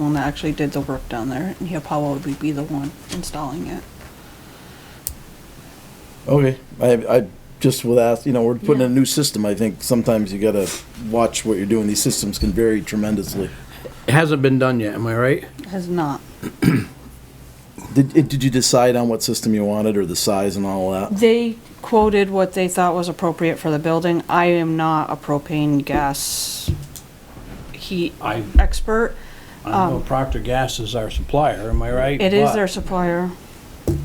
one that actually did the work down there, and Apollo would be the one installing it. Okay, I, I just would ask, you know, we're putting Yeah. in a new system, I think sometimes you gotta watch what you're doing, these systems can vary tremendously. It hasn't been done yet, am I right? Has not. Did, eh, did you decide on what system you wanted, or the size and all that? They quoted what they thought was appropriate for the building. I am not a propane gas heat I, expert. I know Procter Gas is our supplier, am I right? Um, It is But their supplier.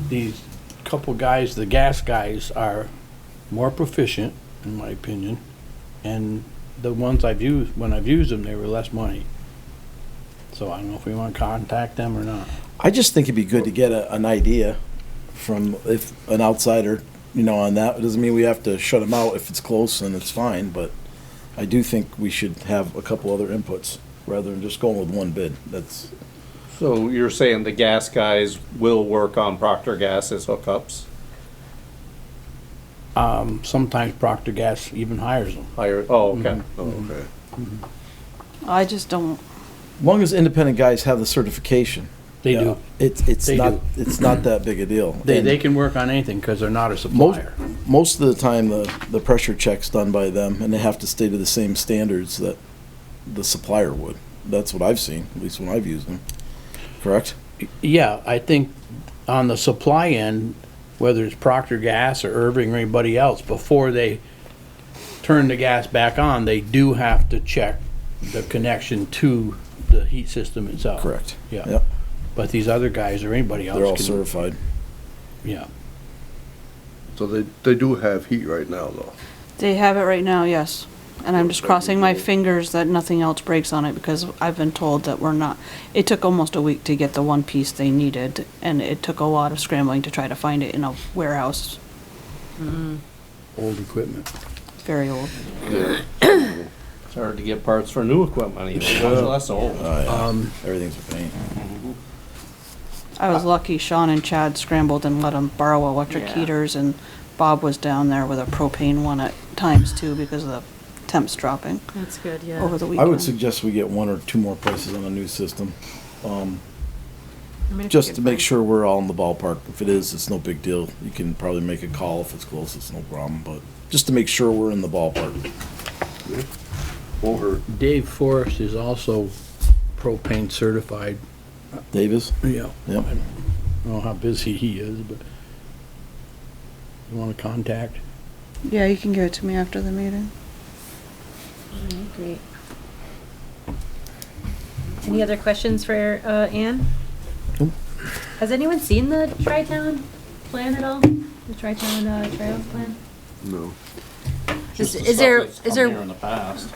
These couple guys, the gas guys, are more proficient, in my opinion, and the ones I've used, when I've used them, they were less money. So I don't know if we want to contact them or not. I just think it'd be good to get a, an idea from, if, an outsider, you know, on that, it doesn't mean we have to shut them out if it's close and it's fine, but I do think we should have a couple other inputs, rather than just going with one bid, that's, So you're saying the gas guys will work on Procter Gas's hookups, Um, sometimes Procter Gas even hires them. hire, oh, okay. Okay. I just don't, as long as independent guys have the certification. They you know, do. It's, it's They not, do. it's not that big a deal. They, And- they can work on anything because they're not a Most, supplier. most of the time, the, the pressure check's done by them, and they have to stay to the same standards that the supplier would. That's what I've seen, at least when I've used them. Correct? Yeah, I think on the supply end, whether it's Procter Gas or Irving or anybody else, before they turn the gas back on, they do have to check the connection to the heat system itself. Correct. Yeah, Yep, but these other guys or anybody else. they're all can- certified. Yeah, So they, they do have heat right now, though. they have it right now, yes. And I'm just crossing my fingers that nothing else breaks on it because I've been told that we're not. It took almost a week to get the one piece they needed, and it took a lot of scrambling to try to find it in a warehouse. old equipment. Very old. It's hard to get parts for new equipment even, that's old. Oh, yeah. Um, Everything's a pain. I was lucky Sean and Chad scrambled and let them borrow electric Uh, Yeah. heaters, and Bob was down there with a propane one at times too because of the temps dropping That's good, yeah. over the I weekend. would suggest we get one or two more prices on a new system, I mean, if you just to could make find- sure we're all in the ballpark. If it is, it's no big deal. You can probably make a call if it's close, it's no problem, but just to make sure we're in the ballpark. Won't hurt. Dave Forrest is also propane certified. Davis? Yeah. Yep. I don't know how busy he is, but you want to contact? Yeah, you can give it to me after the meeting. Mm, Great. Any other questions for uh, Anne? Nope. Has anyone seen the Tri-Town plan at all? The Tri-Town uh, Trails plan? No. Just Is the is stuff there, that's is come here there, In the past.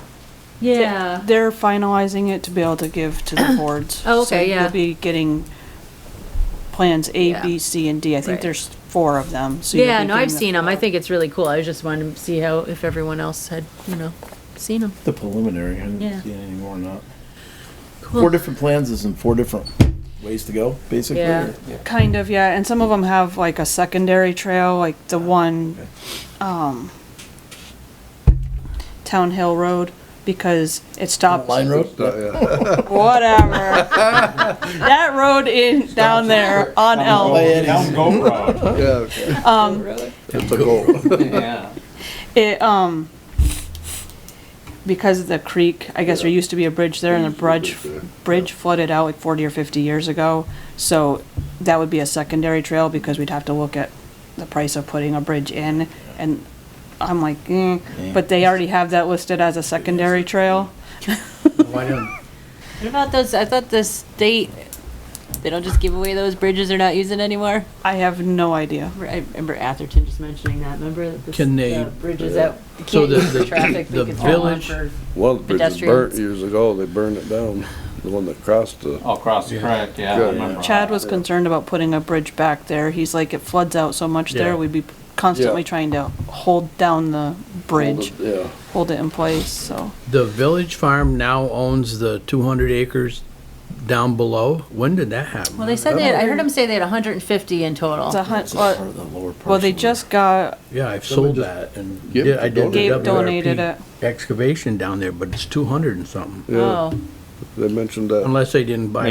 yeah, They're finalizing it to be able to give to the boards. Oh, okay, So yeah. You'll be getting plans A, Yeah. B, C, and D. I think Right. there's four of them, so. you'll yeah, be no, I've getting the- seen them, I think it's really cool, I was just wanting to see how, if everyone else had, you know, seen them. The preliminary, I Yeah. didn't see any more or not. Cool. Four different plans is in four different ways to go, basically. Yeah. or- Kind of, yeah, and some of them have like a secondary trail, like the one, um, Town Hill Road, because it stops. Line road? uh, Whatever. That road in, down there on By Elm, Eddie's. Yeah. It's a goal. Yeah. it, um, because of the creek, I guess there used to be a bridge there and the bridge, bridge flooded out like forty or fifty years ago. So that would be a secondary trail because we'd have to look at the price of putting a bridge in and I'm like, eh, but they already have that listed as a secondary trail. Why don't, What about those? I thought the state they don't just give away those bridges they're not using anymore. I have no idea. I remember Atherton just mentioning that. Remember the, Can they- uh, the bridges that you So can't the- use the- for traffic? the because they're all on village- for- One bridge was burnt Pedestrians. years ago, they burned it down, the one that crossed the, Oh, across the creek, yeah, I Yeah. remember. Chad was concerned about putting a bridge back there. He's like, it floods out so much Yeah. there, we'd be constantly Yeah. trying to hold down the bridge, yeah. hold it in place, so. The village farm now owns the two hundred acres down below. When did that happen? Well, they said they. Had, I heard them say they had 150 in total. It's Oh, a hun, well, the lower well, they just got, Yeah, I've sold that and Yep, did, I did the Gabe donated WRP it. excavation down there, but it's two hundred and something. Yeah. Oh. They mentioned that. Unless they didn't buy